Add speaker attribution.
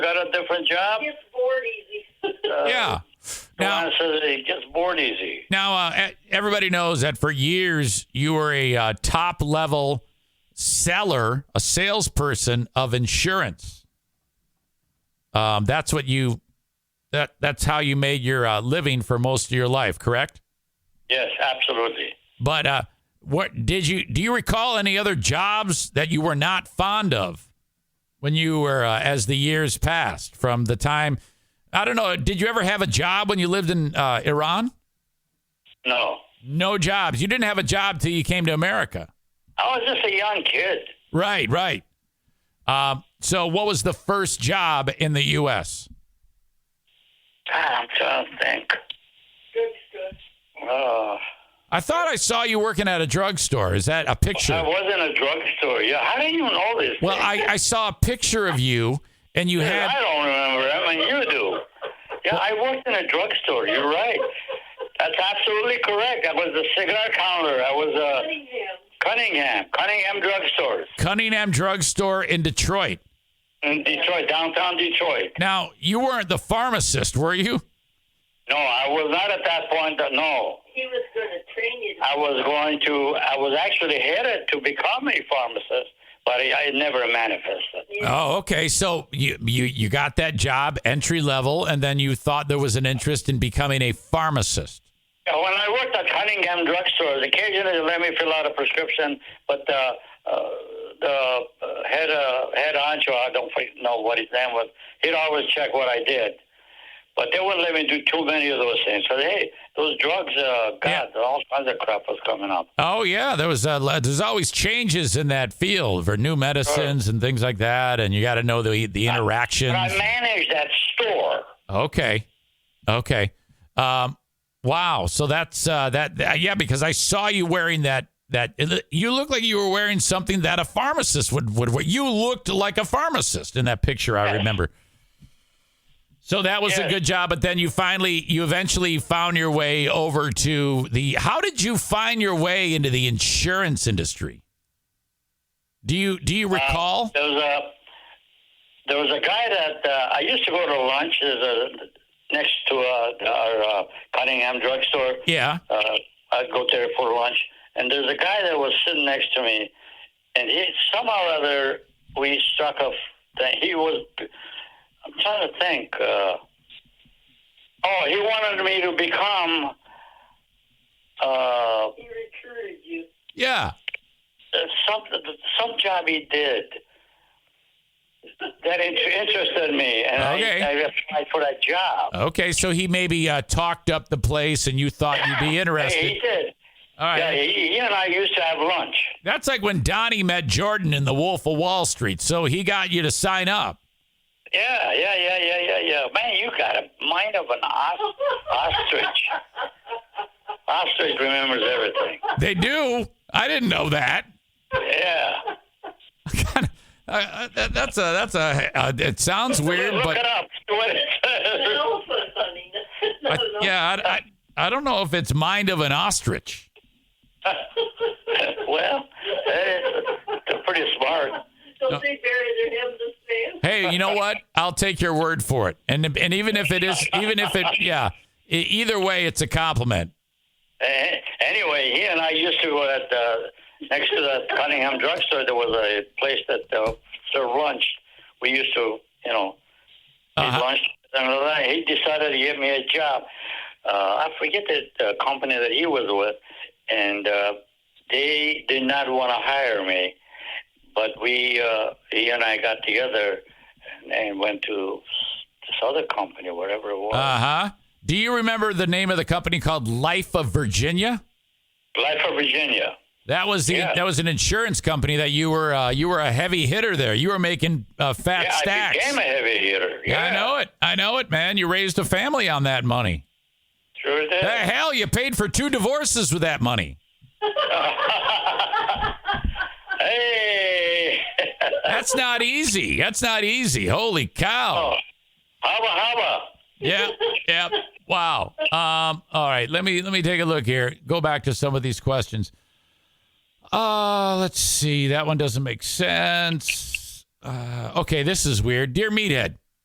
Speaker 1: a different job?
Speaker 2: It's bored easy.
Speaker 1: Uh,
Speaker 3: Yeah. Now,
Speaker 1: Juan says he gets bored easy.
Speaker 3: now uh, e- everybody knows that for years you were a uh, top level seller, a salesperson of insurance. Um, that's what you that that's how you made your uh, living for most of your life, correct?
Speaker 1: Yes, absolutely.
Speaker 3: But uh, what did you do? You recall any other jobs that you were not fond of when you were uh, as the years passed from the time? I don't know. Did you ever have a job when you lived in uh, Iran?
Speaker 1: No.
Speaker 3: No jobs. You didn't have a job till you came to America.
Speaker 1: I was just a young kid.
Speaker 3: Right, right. Um, so, what was the first job in the U.S.?
Speaker 1: God, Ah, I'm trying to think.
Speaker 2: Good, good.
Speaker 1: Uh,
Speaker 3: I thought I saw you working at a drugstore. Is that a picture?
Speaker 1: I was in a drugstore. Yeah, how do you know this?
Speaker 3: well,
Speaker 1: thing?
Speaker 3: I, I saw a picture of you, and you
Speaker 1: Yeah, I
Speaker 3: had.
Speaker 1: don't remember. I mean, you do. Yeah, I worked in a drugstore. You're right. That's absolutely correct. I was the cigar counter. I was a
Speaker 2: Cunningham.
Speaker 1: Cunningham, Cunningham drugstore
Speaker 3: Cunningham Drugstore in Detroit.
Speaker 1: in Detroit, downtown Detroit.
Speaker 3: Now, you weren't the pharmacist, were you?
Speaker 1: No, I was not at that point. No,
Speaker 2: He was going to train you.
Speaker 1: I was going to. I was actually headed to become a pharmacist, but I, I never manifested.
Speaker 3: Oh, okay. So you, you you got that job entry level, and then you thought there was an interest in becoming a pharmacist.
Speaker 1: Yeah, When I worked at Cunningham drugstores, occasionally they let me fill out a prescription, but uh, uh, the uh, head uh, head honcho, I don't fi- know what his name was. He'd always check what I did, but they wouldn't let me do too many of those things. So hey, those drugs, uh,
Speaker 3: Yeah.
Speaker 1: God, all kinds of crap was coming up.
Speaker 3: Oh yeah, there was uh, there's always changes in that field for new medicines and things like that, and you got to know the the
Speaker 1: But I
Speaker 3: interactions.
Speaker 1: managed that store.
Speaker 3: Okay, okay. Um, wow. So that's uh, that, that- Yeah, because I saw you wearing that. That it, loo- you look like you were wearing something that a pharmacist would would wear. You looked like a pharmacist in that picture. I remember. So that was a
Speaker 1: Yes.
Speaker 3: good job, but then you finally, you eventually found your way over to the. How did you find your way into the insurance industry? Do you do you recall?
Speaker 1: There was a there was a guy that uh, I used to go to lunch there's a, next to uh, our uh, Cunningham drugstore.
Speaker 3: yeah.
Speaker 1: uh, I'd go there for lunch, and there's a guy that was sitting next to me, and he somehow or other we struck a thing. He was, I'm trying to think. Uh, oh, he wanted me to become uh,
Speaker 2: He recruited you.
Speaker 3: Yeah.
Speaker 1: some some job he did. That in- interested me, and
Speaker 3: Okay.
Speaker 1: I, I applied for that job.
Speaker 3: Okay, so he maybe uh, talked up the place, and you thought you'd be
Speaker 1: Hey,
Speaker 3: interested.
Speaker 1: he did.
Speaker 3: All right,
Speaker 1: Yeah, he, he and I used to have lunch.
Speaker 3: that's like when Donnie met Jordan in The Wolf of Wall Street. So he got you to sign up.
Speaker 1: Yeah, yeah, yeah, yeah, yeah, yeah. Man, you got a mind of an os- ostrich. Ostrich remembers everything.
Speaker 3: They do. I didn't know that.
Speaker 1: Yeah.
Speaker 3: Uh, Uh, that- that's a that's a. Uh, it sounds weird,
Speaker 1: Look it
Speaker 3: but
Speaker 1: up. See what it
Speaker 2: An
Speaker 1: says.
Speaker 2: elephant hunting. No,
Speaker 3: I,
Speaker 2: no.
Speaker 3: yeah, I, I, I don't know if it's mind of an ostrich.
Speaker 1: Well, eh, they're pretty smart.
Speaker 2: Don't they bury their heads in sand?
Speaker 3: Hey, you know what? I'll take your word for it. And and even if it is, even if it, yeah, e- either way, it's a compliment.
Speaker 1: Eh, Anyway, he and I used to go at uh, next to the Cunningham drugstore. There was a place that uh, served lunch. We used to, you know, He
Speaker 3: Uh-huh.
Speaker 1: launched another. line. He decided to give me a job. Uh, I forget the uh, company that he was with, and uh, they did not want to hire me. But we, uh, he and I, got together and, and went to this other company, whatever it was.
Speaker 3: Uh huh. Do you remember the name of the company called Life of Virginia?
Speaker 1: Life of Virginia.
Speaker 3: That was the
Speaker 1: Yeah.
Speaker 3: that was an insurance company that you were uh, you were a heavy hitter there. You were making uh, fat
Speaker 1: Yeah,
Speaker 3: stacks.
Speaker 1: I became a heavy hitter. Yeah,
Speaker 3: I know it. I know it, man. You raised a family on that money.
Speaker 1: Sure did.
Speaker 3: The hell, you paid for two divorces with that money.
Speaker 1: Hey.
Speaker 3: That's not easy. That's not easy. Holy
Speaker 1: Oh.
Speaker 3: cow.
Speaker 1: haba haba.
Speaker 3: Yeah. Yeah. Wow. Um, all right. Let me let me take a look here. Go back to some of these questions. Uh, let's see. That one doesn't make sense. Uh, okay, this is weird. Dear Meathead,